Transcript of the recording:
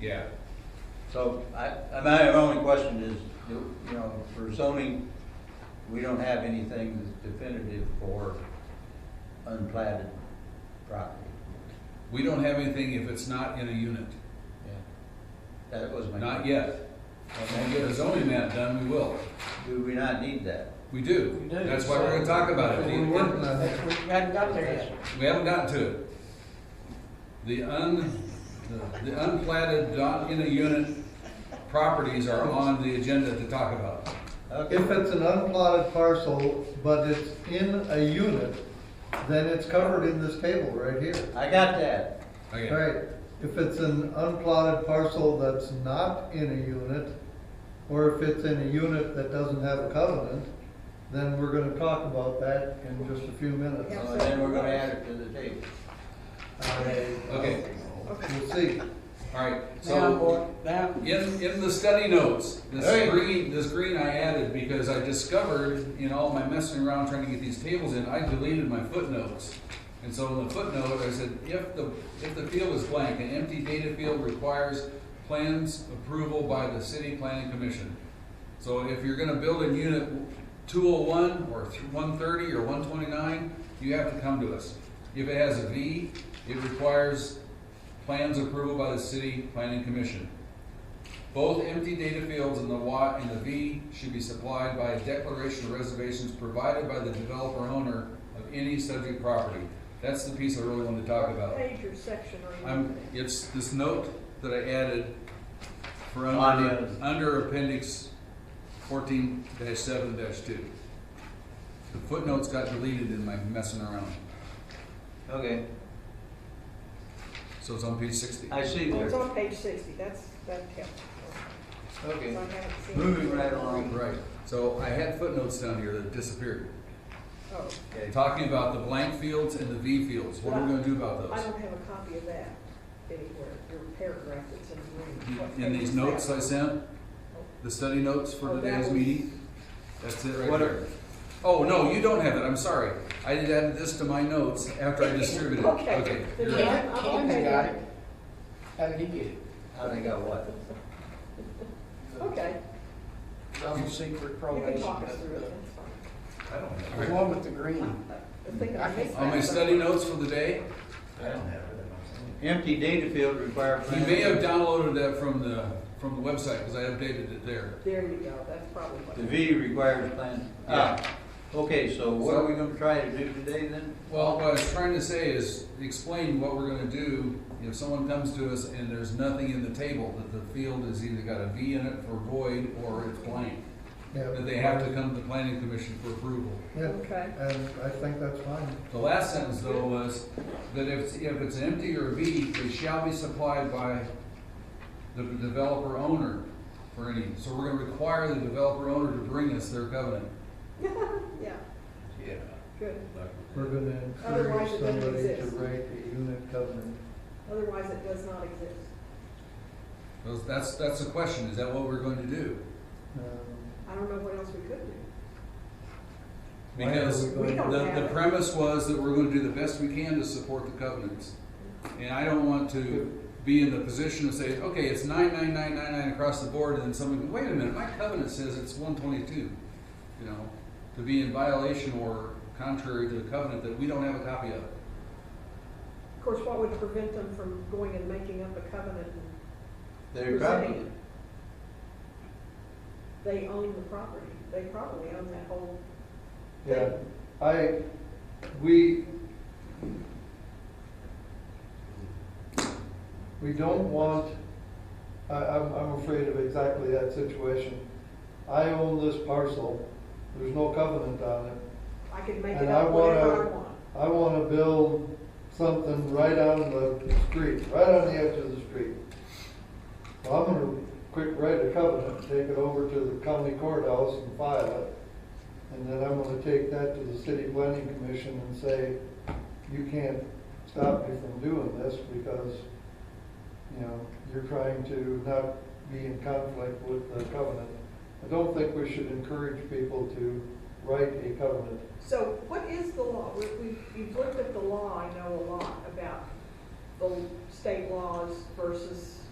Yeah, So I, I- my only question is, you you know, for zoning, we don't have anything that's definitive for unplatted property. we don't have anything if it's not in a unit, Yeah, That was my. not yet. When we get a zoning map done, we will. Do we not need that? We do. We do. That's why we're gonna talk about it. We're working on it. We haven't got there yet. We haven't gotten to it. The un, the- the unplatted, not in a unit properties are on the agenda to talk about. Okay, If it's an unplotted parcel, but it's in a unit, then it's covered in this table right here. I got that. Okay, Right, if it's an unplotted parcel that's not in a unit, or if it's in a unit that doesn't have a covenant, then we're gonna talk about that in just a few minutes. Yeah. So then we're gonna add it to the table. okay, We'll see. all right. Down, So boy, down. in, in the study notes, Hey. this green, this green I added because I discovered in all my messing around trying to get these tables in, I deleted my footnotes. And so in the footnote, I said, if the, if the field is blank, an empty data field requires plans approval by the city planning commission. So if you're gonna build in unit two oh one, or one thirty, or one twenty-nine, you have to come to us. If it has a V, it requires plans approval by the city planning commission. Both empty data fields in the Y and the V should be supplied by a declaration of reservations provided by the developer owner of any subject property. That's the piece I really wanted to talk about. Page or section are you I'm, looking at? it's this note that I added for On under, the- under appendix fourteen seven two. The footnotes got deleted in my messing around, Okay, so it's on page sixty. I see Well, it's there. on page sixty, that's, that tells. Okay. So I haven't seen it. Moving right along. Right, so I had footnotes down here that disappeared, Oh, Okay. talking about the blank fields and the V fields, what are we gonna do about I those? don't have a copy of that anywhere, your paragraph that's in the room. What In page these is notes that? I sent, the study notes for Oh, that today's was- meeting, that's it right What are- there. Oh, no, you don't have it, I'm sorry, I did add this to my notes after I distributed it, Okay. okay. Then you're yeah, right. I'm- I'm Ken's okay. got it. How did he get it? I think I what? Okay, Double secret you probation. can talk us through it, that's fine. I don't have The it. one with the green. I think I I can missed On my that. study notes for the day, I don't have it. Empty data field require. you may have downloaded that from the, from the website, because I updated it there. There you go, that's probably what. The V requires plan. Yeah. Ah, okay, so what are we gonna try to do today then? Well, what I was trying to say is explain what we're gonna do if someone comes to us and there's nothing in the table, that the field has either got a V in it for void or it's blank. Yeah. That they have to come to the planning commission for approval. Yeah, Okay. and I think that's fine. The last sentence though was that if, if it's an empty or a V, it shall be supplied by the developer owner for any. So we're gonna require the developer owner to bring us their covenant. Yeah, Yeah. good, We're gonna encourage Otherwise it doesn't somebody to exist. write a unit covenant. otherwise it does not exist. Those- That's, that's the question, is that what we're going to do? Um, I don't know what else we could do. Why are Because we going- We don't The, have the it. premise was that we're gonna do the best we can to support the covenants. And I don't want to be in the position of saying, okay, it's nine, nine, nine, nine, nine across the board, and then someone, goes, wait a minute, my covenant says it's one twenty-two. You know, to be in violation or contrary to the covenant that we don't have a copy of. Of course, what would prevent them from going and making up a covenant and They're probably, Presenting. they own the property, they probably own that whole Yeah, I, we, we don't want, I, I'm, I'm afraid of exactly that situation. I own this parcel, there's no covenant on it. I can make it And I up whatever I wanna- want. I wanna build something right on the street, right on the edge of the street. Well, I'm gonna quick write a covenant, take it over to the county courthouse and file it. And then I'm gonna take that to the city planning commission and say, you can't stop me from doing this because, you know, you're trying to not be in conflict with the covenant. I don't think we should encourage people to write a covenant. So what is the law? We, we, you've looked at the law, I know a lot about the state laws versus